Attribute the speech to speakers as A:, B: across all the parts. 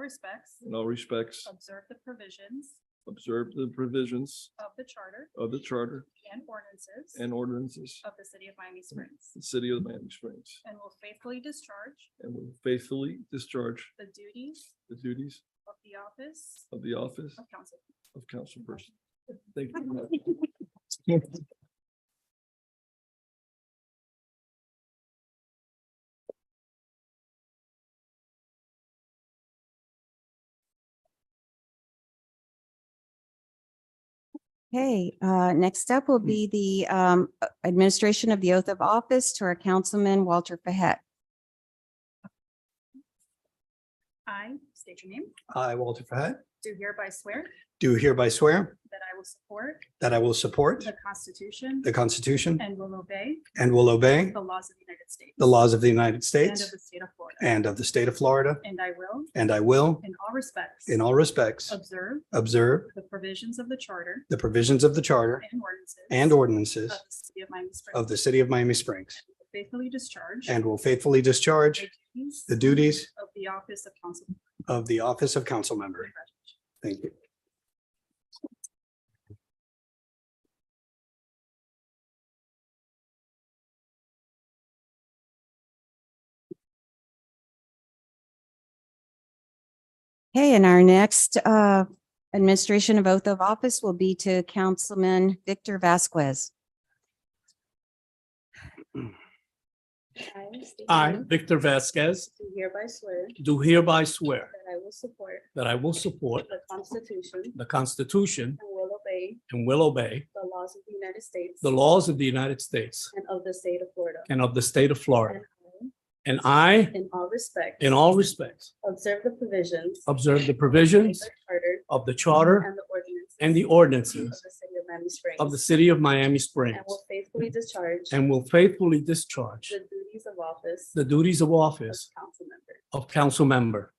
A: respects
B: in all respects,
A: observe the provisions
B: observe the provisions
A: of the charter
B: of the charter
A: and ordinances
B: and ordinances
A: of the city of Miami Springs
B: of the city of Miami Springs,
A: and will faithfully discharge
B: and will faithfully discharge
A: the duties
B: the duties
A: of the office
B: of the office
A: of council.
B: of councilperson. Thank you. very much.
C: Okay, uh, next up will be the um, a- administration of the oath of office to our councilman Walter Pahet.
A: I state your name,
D: I, Walter Fahad,
A: do hereby swear
D: do hereby swear
A: that I will support
D: that I will support
A: the Constitution
D: the Constitution
A: and will obey
D: and will obey
A: the laws of the United States.
D: the laws of the United
A: And of
D: States
A: the state of Florida.
D: and of the state of Florida,
A: And I will,
D: and I will,
A: in all respects.
D: in all respects,
A: Observe
D: observe
A: the provisions of the charter
D: the provisions of the charter
A: and ordinances.
D: and
A: Of
D: ordinances
A: the city of Miami Springs.
D: of the city of Miami Springs,
A: Faithfully discharge.
D: and will faithfully discharge
A: the duties
D: the duties
A: Of the office of council.
D: of the office of council member. Thank you.
C: Okay, and our next uh, administration of oath of office will be to Councilman Victor Vasquez.
E: I,
A: Mm-hmm.
E: Victor Vasquez,
A: Do hereby swear
E: do hereby swear
A: that I will support
E: that I will support
A: the Constitution and
E: the Constitution
A: will obey
E: and will obey
A: the laws of the United States.
E: the laws of the United States
A: And of the state of Florida.
E: and of the state of Florida.
A: And I,
E: And I,
A: In all respects.
E: in all respects,
A: Observe the provisions.
E: observe
A: of
E: the provisions
A: the Charter
E: of the Charter
A: and the ordinances.
E: and the
A: Of
E: ordinances
A: the city of Miami Springs.
E: of the city of Miami Springs
A: And will faithfully discharge.
E: and will faithfully discharge
A: The duties of office.
E: the duties of
A: Of
E: office
A: council member.
E: of council member.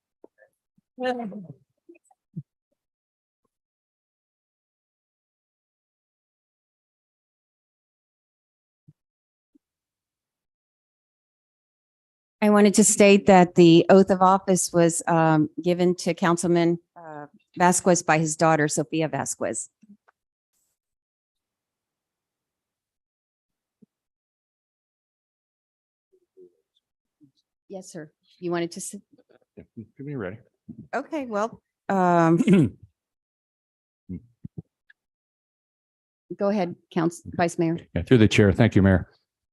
C: I wanted to state that the oath of office was um, given to Councilman uh, Vasquez by his daughter Sophia Vasquez. Yes, sir. You wanted to, s-
F: Give me ready.
C: okay, well, um, go ahead, Council, Vice Mayor.
F: Yeah, through the chair. Thank you, Mayor.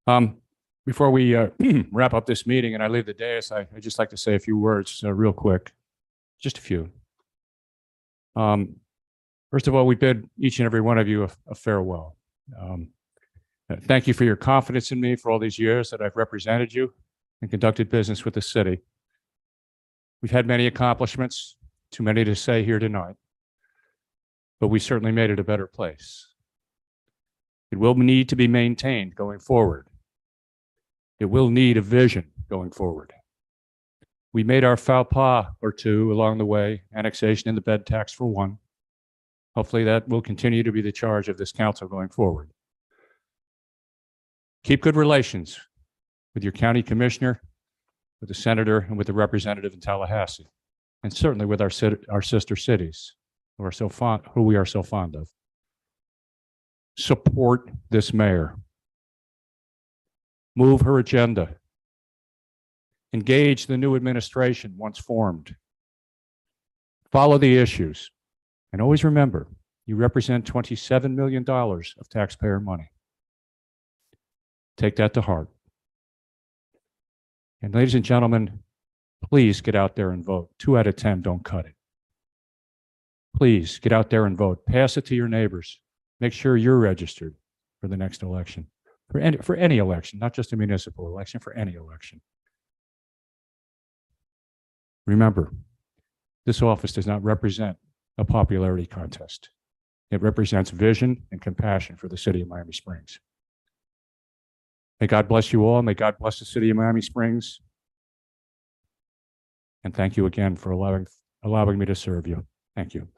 F: Um, before we uh, wrap up this meeting and I leave the dais, I, I'd just like to say a few words, uh, real quick, just a few. Um, first of all, we bid each and every one of you a, a farewell. Um, uh, thank you for your confidence in me for all these years that I've represented you and conducted business with the city. We've had many accomplishments, too many to say here tonight, but we certainly made it a better place. It will need to be maintained going forward. It will need a vision going forward. We made our faux pas or two along the way, annexation and the bed tax for one. Hopefully that will continue to be the charge of this council going forward. Keep good relations with your county commissioner, with the senator, and with the representative in Tallahassee, and certainly with our, cit- our sister cities who are so fond, who we are so fond of support this mayor. Move her agenda. Engage the new administration once formed. Follow the issues. And always remember, you represent $27 million of taxpayer money. Take that to heart. And ladies and gentlemen, please get out there and vote. Two out of 10 don't cut it. Please get out there and vote. Pass it to your neighbors make sure you're registered for the next election, for any, for any election, not just a municipal election, for any election. Remember, this office does not represent a popularity contest. It represents vision and compassion for the city of Miami Springs. May God bless you all. May God bless the city of Miami Springs. And thank you again for allowing, allowing me to serve you. Thank you.